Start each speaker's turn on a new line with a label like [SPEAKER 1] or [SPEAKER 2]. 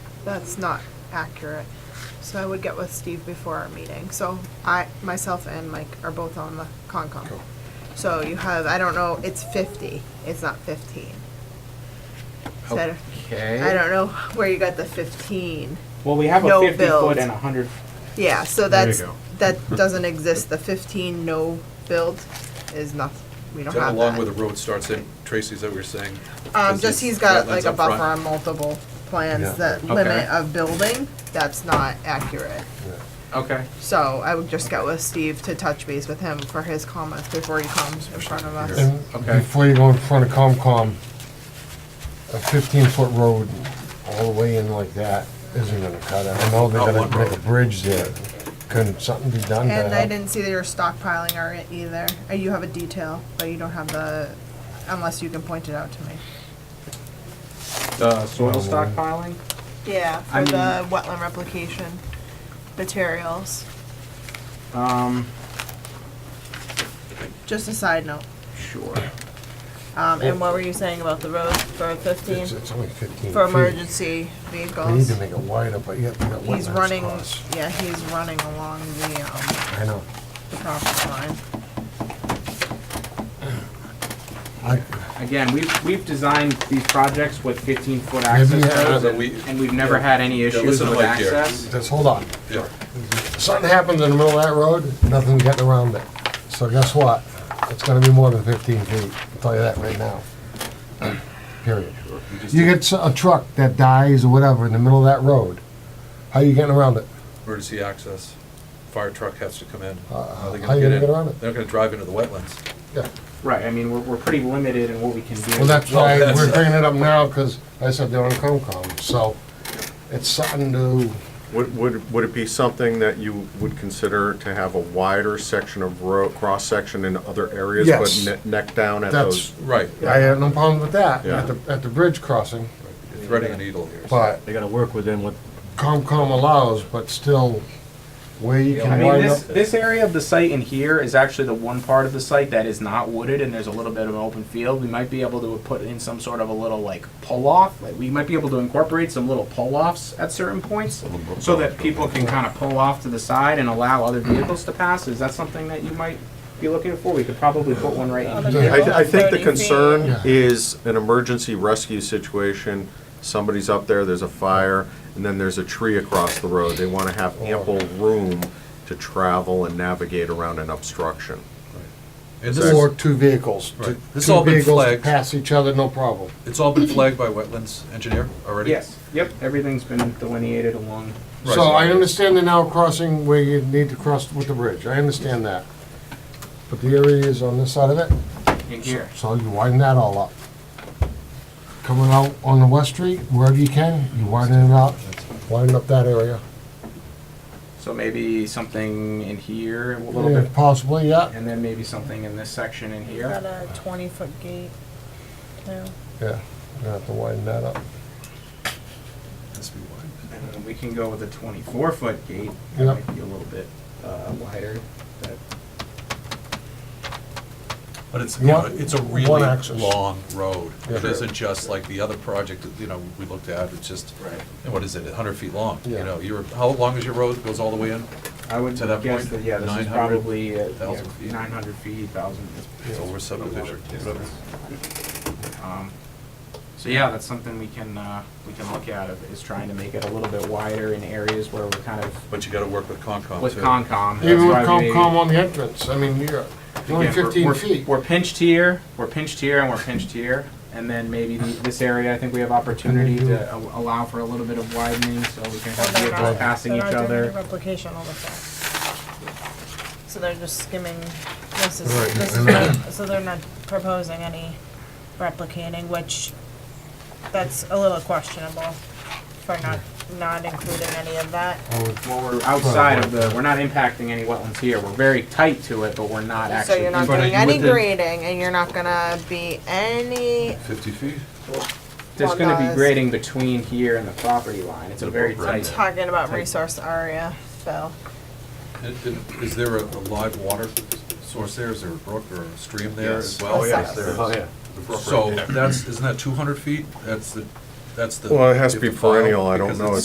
[SPEAKER 1] that's not accurate. So I would get with Steve before our meeting. So I, myself and Mike are both on the Concom.
[SPEAKER 2] Cool.
[SPEAKER 1] So you have, I don't know, it's fifty, it's not fifteen.
[SPEAKER 3] Oh.
[SPEAKER 1] So I don't-
[SPEAKER 2] Okay.
[SPEAKER 1] I don't know where you got the fifteen.
[SPEAKER 4] Well, we have a
[SPEAKER 1] No
[SPEAKER 4] fifty
[SPEAKER 1] build.
[SPEAKER 4] foot and a hundred,
[SPEAKER 1] Yeah, so
[SPEAKER 2] There you
[SPEAKER 1] that's,
[SPEAKER 2] go.
[SPEAKER 1] that doesn't exist. The fifteen no build is not, we don't
[SPEAKER 3] Is that
[SPEAKER 1] have
[SPEAKER 3] along where the
[SPEAKER 1] that.
[SPEAKER 3] road starts in, Tracy's that we were saying?
[SPEAKER 1] Um,
[SPEAKER 3] Is
[SPEAKER 1] just
[SPEAKER 3] it
[SPEAKER 1] he's got
[SPEAKER 3] wetlands
[SPEAKER 1] like a
[SPEAKER 3] up front?
[SPEAKER 1] buffer on multiple plans, that
[SPEAKER 3] Okay.
[SPEAKER 1] limit of building, that's not accurate.
[SPEAKER 4] okay.
[SPEAKER 1] So I would just get with Steve to touch base with him for his comments before he comes in front of us.
[SPEAKER 2] And
[SPEAKER 4] Okay.
[SPEAKER 2] before you go in front of COMCOM, a fifteen-foot road all the way in like that isn't gonna cut it. I know they're
[SPEAKER 3] Not
[SPEAKER 2] gonna
[SPEAKER 3] one
[SPEAKER 2] make a
[SPEAKER 3] road.
[SPEAKER 2] bridge there. Couldn't something be done to
[SPEAKER 1] And I
[SPEAKER 2] help?
[SPEAKER 1] didn't see that you're stockpiling or it either, Uh, you have a detail, but you don't have the, unless you can point it out to me.
[SPEAKER 4] The uh, soil stockpiling?
[SPEAKER 1] Yeah,
[SPEAKER 4] I
[SPEAKER 1] for the
[SPEAKER 4] mean-
[SPEAKER 1] wetland replication materials,
[SPEAKER 4] Um,
[SPEAKER 1] just a side note.
[SPEAKER 4] sure.
[SPEAKER 1] Um, and what were you saying about the road for fifteen,
[SPEAKER 2] It's, it's only fifteen
[SPEAKER 1] for
[SPEAKER 2] feet.
[SPEAKER 1] emergency
[SPEAKER 2] We need
[SPEAKER 1] vehicles?
[SPEAKER 2] to make it wider, but yet we got
[SPEAKER 1] He's
[SPEAKER 2] wetlands
[SPEAKER 1] running,
[SPEAKER 2] across.
[SPEAKER 1] yeah, he's running along the, um,
[SPEAKER 2] I know.
[SPEAKER 1] the property line.
[SPEAKER 2] I,
[SPEAKER 4] Again, we've, we've designed these projects with fifteen foot
[SPEAKER 2] Maybe
[SPEAKER 4] access
[SPEAKER 2] you have-
[SPEAKER 4] roads
[SPEAKER 3] Yeah,
[SPEAKER 4] and
[SPEAKER 3] we-
[SPEAKER 4] and we've never had any issues
[SPEAKER 3] listen to
[SPEAKER 4] with
[SPEAKER 3] Mike here.
[SPEAKER 4] access.
[SPEAKER 2] just hold on.
[SPEAKER 3] Yeah.
[SPEAKER 2] Something happens in the middle of that road, nothing getting around it. So guess what? It's gonna be more than fifteen feet. I'll tell you that right now. Period.
[SPEAKER 3] We just
[SPEAKER 2] You
[SPEAKER 3] did
[SPEAKER 2] get s- a truck that dies or whatever in the middle of that road, how you getting around it?
[SPEAKER 3] Emergency access, fire truck has to come in. How are they
[SPEAKER 2] Uh, how
[SPEAKER 3] gonna
[SPEAKER 2] you
[SPEAKER 3] get
[SPEAKER 2] gonna
[SPEAKER 3] in?
[SPEAKER 2] get around it?
[SPEAKER 3] They're not gonna drive into the wetlands.
[SPEAKER 2] Yeah.
[SPEAKER 4] Right, I mean, we're, we're pretty limited in what we can do.
[SPEAKER 2] Well, that's
[SPEAKER 3] Well,
[SPEAKER 2] why
[SPEAKER 3] that's-
[SPEAKER 2] we're bringing it up now, because I said they're on COMCOM, so it's something to,
[SPEAKER 5] Would, would, would it be something that you would consider to have a wider section of road, cross-section in other areas?
[SPEAKER 2] Yes.
[SPEAKER 5] But ne- neck down at
[SPEAKER 2] that's,
[SPEAKER 5] those?
[SPEAKER 3] Right,
[SPEAKER 2] I have no problem with that, at
[SPEAKER 5] Yeah.
[SPEAKER 2] the, at the bridge crossing,
[SPEAKER 3] threading a needle here.
[SPEAKER 2] but
[SPEAKER 6] They gotta work within what,
[SPEAKER 2] COMCOM allows, but still, where you
[SPEAKER 4] I
[SPEAKER 2] can
[SPEAKER 4] mean,
[SPEAKER 2] wind
[SPEAKER 4] this,
[SPEAKER 2] up.
[SPEAKER 4] this area of the site in here is actually the one part of the site that is not wooded and there's a little bit of an open field. We might be able to put in some sort of a little like pull-off, like we might be able to incorporate some little pull-offs at certain points so that people can kind of pull off to the side and allow other vehicles to pass. Is that something that you might be looking for? We could probably put one right in here.
[SPEAKER 2] Yeah.
[SPEAKER 5] I, I think the concern
[SPEAKER 2] Yeah.
[SPEAKER 5] is an emergency rescue situation, somebody's up there, there's a fire, and then there's a tree across the road. They wanna have
[SPEAKER 6] Oh.
[SPEAKER 5] ample room to travel and navigate around an obstruction.
[SPEAKER 3] And this
[SPEAKER 2] Or
[SPEAKER 3] is,
[SPEAKER 2] two vehicles,
[SPEAKER 3] Right.
[SPEAKER 2] two
[SPEAKER 3] This
[SPEAKER 2] two
[SPEAKER 3] all been
[SPEAKER 2] vehicles
[SPEAKER 3] flagged.
[SPEAKER 2] pass each other, no problem.
[SPEAKER 3] it's all been flagged by wetlands engineer already?
[SPEAKER 4] Yes, yep, everything's been delineated along.
[SPEAKER 3] Right.
[SPEAKER 2] So I understand the now crossing where you need to cross with the bridge, I understand that. But the area is on this side of it,
[SPEAKER 4] in here.
[SPEAKER 2] so you widen that all up. Coming out on the West Street, wherever you can, you widen it up, widen up that area.
[SPEAKER 4] So maybe something in here a little
[SPEAKER 2] Yeah,
[SPEAKER 4] bit,
[SPEAKER 2] Possibly, yeah,
[SPEAKER 4] and then maybe something in this section in here.
[SPEAKER 1] Got a twenty-foot gate, too.
[SPEAKER 2] yeah, you have to widen that up.
[SPEAKER 3] Has to be wide.
[SPEAKER 4] And then Uh, we can go with a twenty-four foot gate, that
[SPEAKER 2] Yep.
[SPEAKER 4] might be a little bit uh, wider, but
[SPEAKER 3] But it's, you know,
[SPEAKER 2] One-
[SPEAKER 3] it's a
[SPEAKER 2] one
[SPEAKER 3] really
[SPEAKER 2] axis.
[SPEAKER 3] long road.
[SPEAKER 2] Yeah.
[SPEAKER 3] It isn't just like the other project, that, you know, we looked at, it's just,
[SPEAKER 4] Right.
[SPEAKER 3] and what is it, hundred feet long? You
[SPEAKER 2] Yeah.
[SPEAKER 3] know, you're, how long is your road, goes all the way in?
[SPEAKER 4] I would
[SPEAKER 3] To that point,
[SPEAKER 4] guess that, yeah, this is
[SPEAKER 3] 900,
[SPEAKER 4] probably, uh, yeah,
[SPEAKER 3] 1,000 feet.
[SPEAKER 4] nine hundred feet, thousand.
[SPEAKER 3] It's over subdivision.
[SPEAKER 4] Um, So yeah, that's something we can, uh, we can look at, is trying to make it a little bit wider in areas where we're kind of,
[SPEAKER 3] But you gotta work with Concom too.
[SPEAKER 4] with Concom.
[SPEAKER 2] Even with
[SPEAKER 4] that's why we-
[SPEAKER 2] COMCOM on the entrance, I mean, you're only
[SPEAKER 4] Again, we're-
[SPEAKER 2] fifteen
[SPEAKER 4] we're-
[SPEAKER 2] feet.
[SPEAKER 4] We're pinched here, we're pinched here, and we're pinched here, and then maybe the- this area, I think we have opportunity to a- allow for a little bit of widening, so we can have vehicles passing each other.
[SPEAKER 1] Replication all the time. So they're just skimming, this is,
[SPEAKER 2] Right,
[SPEAKER 1] this
[SPEAKER 2] and then-
[SPEAKER 1] is, so they're not proposing any replicating, which, that's a little questionable for not, not including any of that.
[SPEAKER 2] I would-
[SPEAKER 4] Well, we're outside of the, we're not impacting any wetlands here, we're very tight to it, but we're not
[SPEAKER 1] So
[SPEAKER 4] actually.
[SPEAKER 1] you're not
[SPEAKER 3] But
[SPEAKER 1] doing
[SPEAKER 3] you
[SPEAKER 1] any
[SPEAKER 3] would then-
[SPEAKER 1] grading, and you're not gonna be any,
[SPEAKER 3] Fifty feet?
[SPEAKER 4] There's gonna be
[SPEAKER 1] Well,
[SPEAKER 4] grading between here and the property line, it's a very
[SPEAKER 3] Right.
[SPEAKER 4] tight.
[SPEAKER 1] talking about resource area, Bill.
[SPEAKER 3] And- and Uh, Is there a a live water source there? Is there a brook or a stream there as
[SPEAKER 5] Yes.
[SPEAKER 3] well?
[SPEAKER 1] Oh, yes,
[SPEAKER 3] there is.
[SPEAKER 6] oh, yeah.
[SPEAKER 3] So that's, isn't that 200 feet? That's the, that's the.
[SPEAKER 5] Well, it has to
[SPEAKER 3] you
[SPEAKER 5] be
[SPEAKER 3] have file
[SPEAKER 5] perennial, I don't
[SPEAKER 3] because
[SPEAKER 5] know.
[SPEAKER 3] it's-